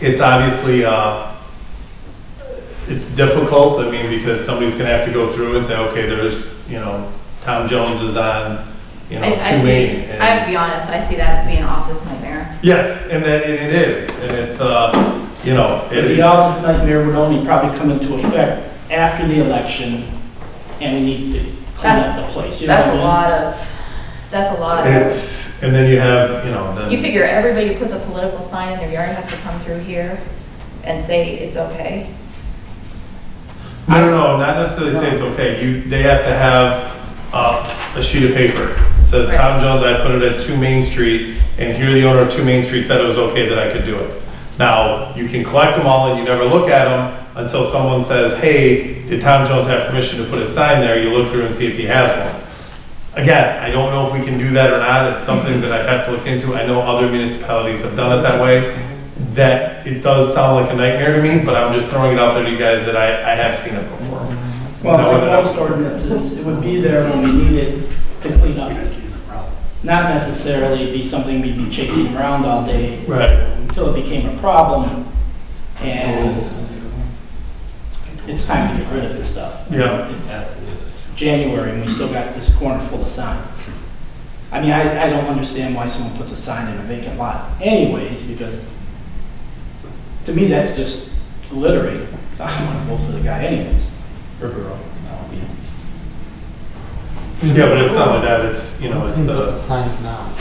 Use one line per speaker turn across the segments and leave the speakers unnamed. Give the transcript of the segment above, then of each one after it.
it's obviously, uh, it's difficult, I mean, because somebody's gonna have to go through and say, okay, there's, you know, Tom Jones is on, you know,
I- I
two
see-
eight.
I have to be honest, I see that to be an office nightmare.
Yes, and that, and it is, and it's, uh, you know,
But
it
the
is,
office nightmare would only probably come into effect after the election, and we need to clean up the place. you know
That's
what
a
I
lot of, that's a lot of,
it's, and then you have, you know,
you
then,
figure everybody who puts a political sign in their yard has to come through here and say it's okay.
I don't know, not necessarily say it's okay, you, they have to have, uh, a sheet of paper. It says,
Right.
Tom Jones, I put it at Two Main Street, and here the owner of Two Main Street said it was okay that I could do it. Now, you can collect them all and you never look at them until someone says, hey, did Tom Jones have permission to put a sign there? You look through and see if he has one. Again, I don't know if we can do that or not, it's something that I have to look into, I know other municipalities have done it that way. That, it does sound like a nightmare to me, but I'm just throwing it out there to you guys that I, I have seen it before. Now,
Well,
whether
like
that
most
was-
ordinances, it would be there when we need it to clean up. Not necessarily be something we'd be chasing around all day
Right,
until it became a problem, and it's time to get rid of this stuff.
yeah,
It's uh, January, and we still got this corner full of signs. I mean, I, I don't understand why someone puts a sign in a vacant lot anyways, because to me, that's just littering. I want to vote for the guy anyways, or girl. I don't know.
yeah, but it's not like that, it's, you know, it's
Cleans up the
the,
signs now,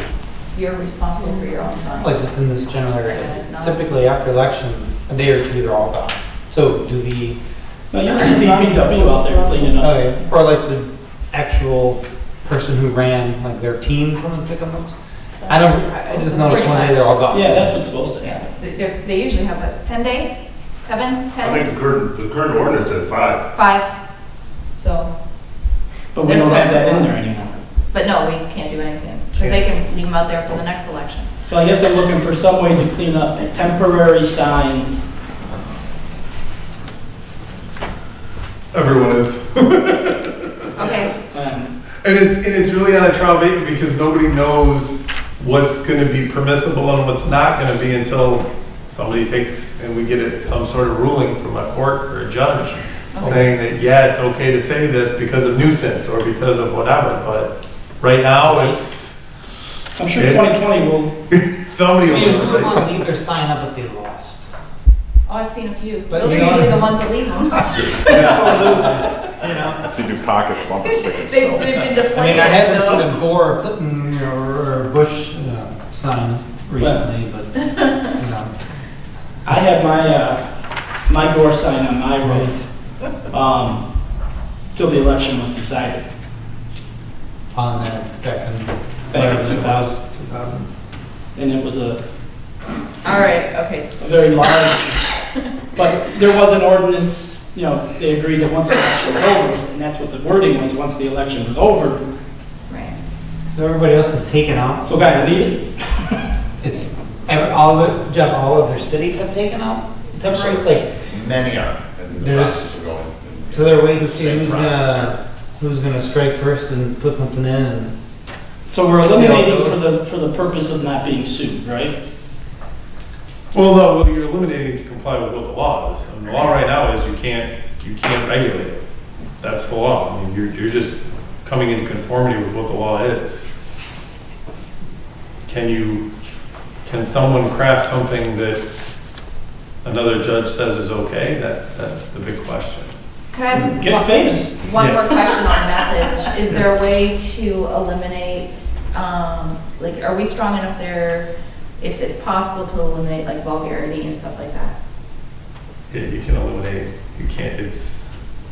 You're responsible for your own sign.
like just in this general area. Typically after election, a day or two, they're all gone. So do we,
No, you'll see DPW out there cleaning up.
okay, uh, or like the actual person who ran, like their team come and pick them up? I don't, I I just noticed one day they're all gone.
Yeah, that's what's supposed to happen.
Th- There's, they usually have, what, 10 days?
I
Seven, 10,
think the current, the current ordinance says five.
five? So,
But we don't have that in there anymore.
but no, we can't do anything, because they can leave them out there for the next election.
So I guess I'm looking for some way to clean up the temporary signs.
everyone is.
Okay,
Um,
And it's, and it's really on a trial basis because nobody knows what's gonna be permissible and what's not gonna be until somebody takes, and we get it- some sort of ruling from a court or a judge saying that, yeah, it's okay to say this because of nuisance or because of whatever, but right now, it's,
I'm sure
Yes.
2020 will,
somebody
I mean,
will.
who would
do it.
want to leave their sign up if they lost?
oh, I've seen a few.
But
Those are
you know-
usually the ones that leave them.
You know?
See new pockets, bumper stickers.
They've
so.
they've been
I mean, I
deflated,
haven't seen
so.
a Gore or Clinton, you know, or or Bush, you know, sign recently, but, you know.
I had my, uh, my door sign on my road, um, till the election was decided,
on that back in.
back in 2000.
2000.
And it was a
All right, okay.
a very large, but there was an ordinance, you know, they agreed that once the election was over, and that's what the wording was, once the election was over,
Right.
So everybody else is taken out?
so guy, leave it.
It's, every, all the, Jeff, all of their cities have taken out temporary, like,
Many are in the
There's-
process of going.
so they're waiting to see
Same
who's
process here.
gonna, who's gonna strike first and put something in and.
So we're eliminating for the, for the purpose of not being sued, right?
Well, no, well, you're eliminating to comply with what the law is. And the law right now is you can't, you can't regulate it. That's the law. I mean, you're, you're just coming into conformity with what the law is. Can you, can someone craft something that another judge says is okay? That, that's the big question.
Can I ask
Mm-hmm.
Get famous.
One
Yeah.
more question on message. Is there a way to eliminate, um, like, are we strong enough there if it's possible to eliminate like vulgarity and stuff like that?
Yeah, you can eliminate, you can't, it's,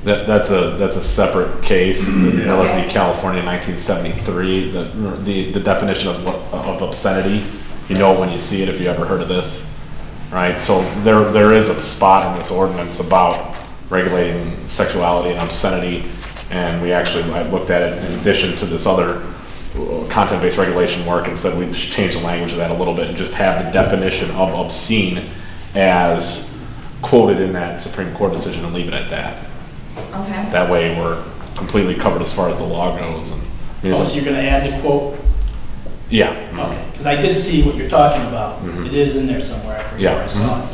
That, that's a, that's a separate case.
Yeah.
Relative to California, nineteen seventy-three, the, the, the definition of, what- of obscenity. You know it when you see it, if you ever heard of this, right? So there, there is a spot in this ordinance about regulating sexuality and obscenity. And we actually, I looked at it in addition to this other uh, content-based regulation work and said we should change the language of that a little bit and just have the definition of obscene as quoted in that Supreme Court decision and leave it at that.
Okay.
That way, we're completely covered as far as the law goes, and, I mean,
Oh, so
it's a-
you're gonna add the quote?
yeah.
Oh, Okay, because I did see what you're talking about. It is in there somewhere, I forget where I
Yeah,
saw it.